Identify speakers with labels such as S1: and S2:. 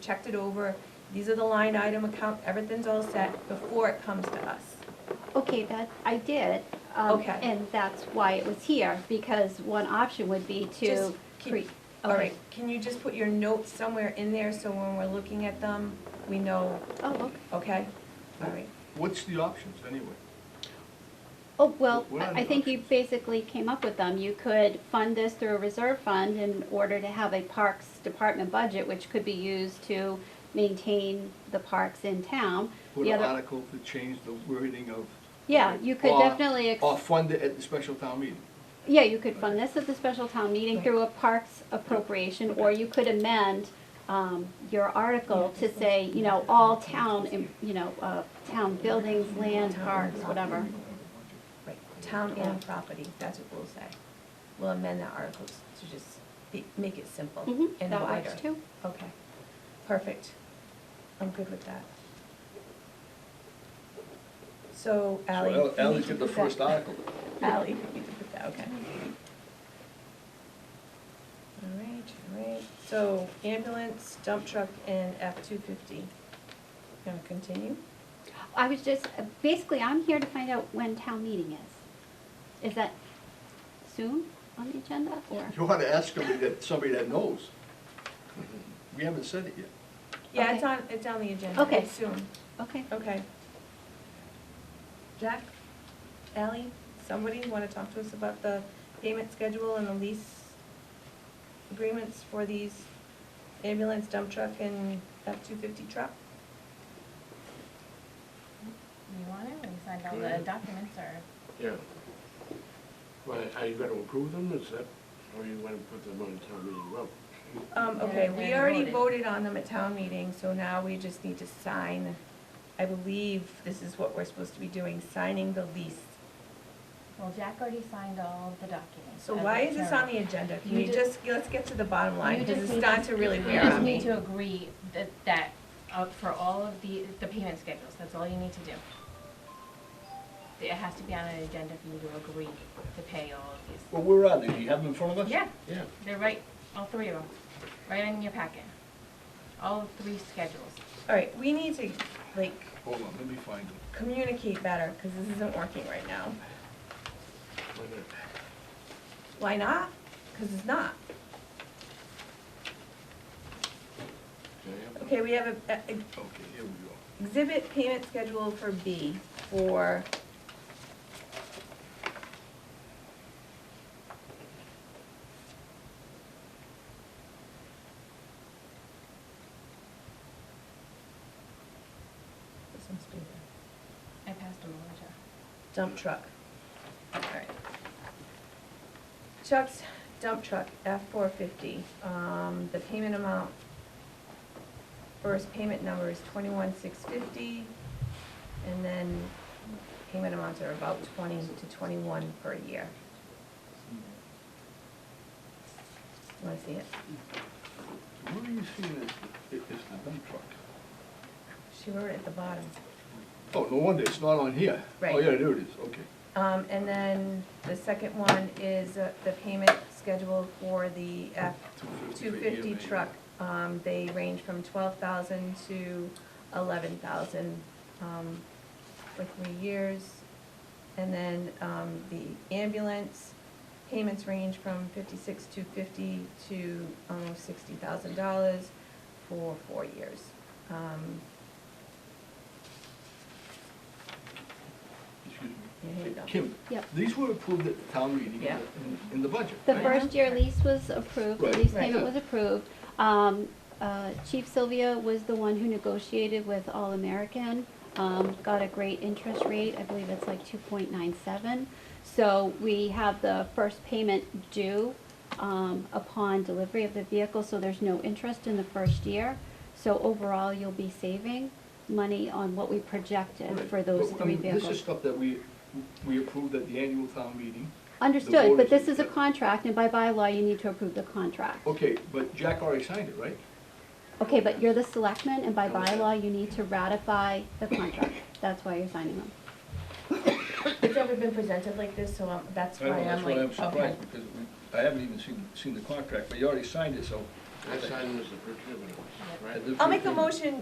S1: checked it over, these are the line item account, everything's all set before it comes to us.
S2: Okay, that, I did. um,
S1: Okay.
S2: And that's why it was here, because one option would be to
S1: Just keep-
S2: create.
S1: All right, can you just put your notes somewhere in there so when we're looking at them, we know,
S2: Oh, okay.
S1: okay? All right,
S3: What's the options anyway?
S2: Oh, well,
S3: What are
S2: I I
S3: the
S2: think you basically came up with them. You could fund this through a reserve fund in order to have a Parks Department budget, which could be used to maintain the parks in town.
S3: Put
S2: The
S3: an
S2: other-
S3: article to change the wording of.
S2: Yeah, you could
S3: Or-
S2: definitely ex-
S3: Or fund it at the special town meeting.
S2: Yeah, you could fund this at the special town meeting through a parks appropriation, or you could amend um, your article to say, you know, all town, em- you know, uh, town buildings, land, parks, whatever.
S1: right, town-owned
S2: Yeah.
S1: property, that's what we'll say. We'll amend that article to just be- make it simple and
S2: Mhm,
S1: wider.
S2: That works too.
S1: Okay, perfect. I'm good with that. So Ally. you
S4: So Ally
S1: need to
S4: did the
S1: put that-
S4: first article.
S1: Ally, you need to put that, okay. All right, all right, so ambulance, dump truck, and F-250. Gonna continue?
S2: I was just, basically, I'm here to find out when town meeting is. Is that soon on the agenda, or?
S3: You ought to ask somebody that, somebody that knows. We haven't said it yet.
S1: Yeah, it's
S2: Okay.
S1: on, it's on the agenda.
S2: Okay.
S1: It's Soon,
S2: Okay.
S1: okay. Jack, Ally, somebody wanna talk to us about the payment schedule and the lease agreements for these ambulance, dump truck, and F-250 truck?
S5: You want it, we signed all
S4: Yeah.
S5: the documents, or,
S4: Yeah. Well, are you gonna approve them, is that, or you wanna put them on town meeting road?
S1: Um, okay,
S5: And
S1: we
S5: then
S1: already
S5: voted.
S1: voted on them at town meeting, so now we just need to sign. I believe this is what we're supposed to be doing, signing the lease.
S5: well, Jack already signed all the documents.
S1: So
S5: as
S1: why
S5: the
S1: is this
S5: chairman.
S1: on the agenda? Can
S5: You
S1: you
S5: ju-
S1: just, let's get to the bottom line,
S5: You
S1: because
S5: just
S1: it's
S5: need
S1: starting to really wear
S5: You just
S1: on
S5: need
S1: me.
S5: to agree that, that, uh, for all of the, the payment schedules, that's all you need to do. It has to be on an agenda for you to agree to pay all of
S4: Well, where are they, do you have them in front of
S5: these. Yeah,
S4: Yeah.
S5: they're right, all three of them, right in your packet. All three schedules.
S1: All right, we need to, like,
S3: Hold on, let me find them.
S1: communicate better, because this isn't working right now.
S4: Why not?
S1: Why not? Because it's not.
S4: Can I have them?
S1: Okay, we have a, a-
S3: Okay, here we go.
S1: Exhibit payment schedule for B for This one's bigger.
S5: I passed them over to.
S1: Dump truck. All right. Chuck's dump truck, F four fifty, um, the payment amount, first payment number is twenty-one six fifty, and then payment amounts are about twenty to twenty-one per year. Wanna see it?
S3: So Where are you seeing this, it's the dump truck?
S1: She wrote it at the bottom.
S3: Oh, no wonder, it's not on here. Oh,
S1: Right.
S3: yeah, there it is, okay.
S1: Um, and then the second one is uh, the payment schedule for the F two
S3: 250 for
S1: fifty
S3: EMA.
S1: truck. Um, they range from twelve thousand to eleven thousand, um, for three years. And then, um, the ambulance payments range from fifty-six to fifty to almost sixty thousand dollars for four years. Um,
S3: Excuse me.
S1: yeah, here you go.
S3: Kim,
S2: Yep.
S3: these were approved at the town meeting
S1: Yeah.
S3: in, in the budget,
S2: The
S3: right?
S2: first year lease was approved, the
S3: Right.
S2: lease
S1: Right.
S2: payment was approved. Um, uh, Chief Sylvia was the one who negotiated with All American, um, got a great interest rate, I believe it's like two point nine seven. So we have the first payment due, um, upon delivery of the vehicle, so there's no interest in the first year. So overall, you'll be saving money on what we
S1: uh,
S2: projected
S3: Right.
S2: for those
S3: But, I
S2: three
S3: mean,
S2: vehicles.
S3: This is stuff that we, we approved at the annual town meeting.
S2: Understood, but
S3: voters-
S2: this is a contract, and by bylaw, you need to approve the contract.
S3: Okay, but Jack already signed it, right?
S2: Okay, but you're the selectman, and by
S3: Okay.
S2: bylaw, you need to ratify the contract. That's why you're signing them.
S1: It's never been presented like this, so I'm, that's why
S3: I know,
S1: I'm
S3: that's why
S1: like,
S3: I'm
S1: okay.
S3: surprised, because we- I haven't even seen, seen the contract, but you already signed it, so
S4: I signed them as the procurement, officer, right?
S5: I'll make a motion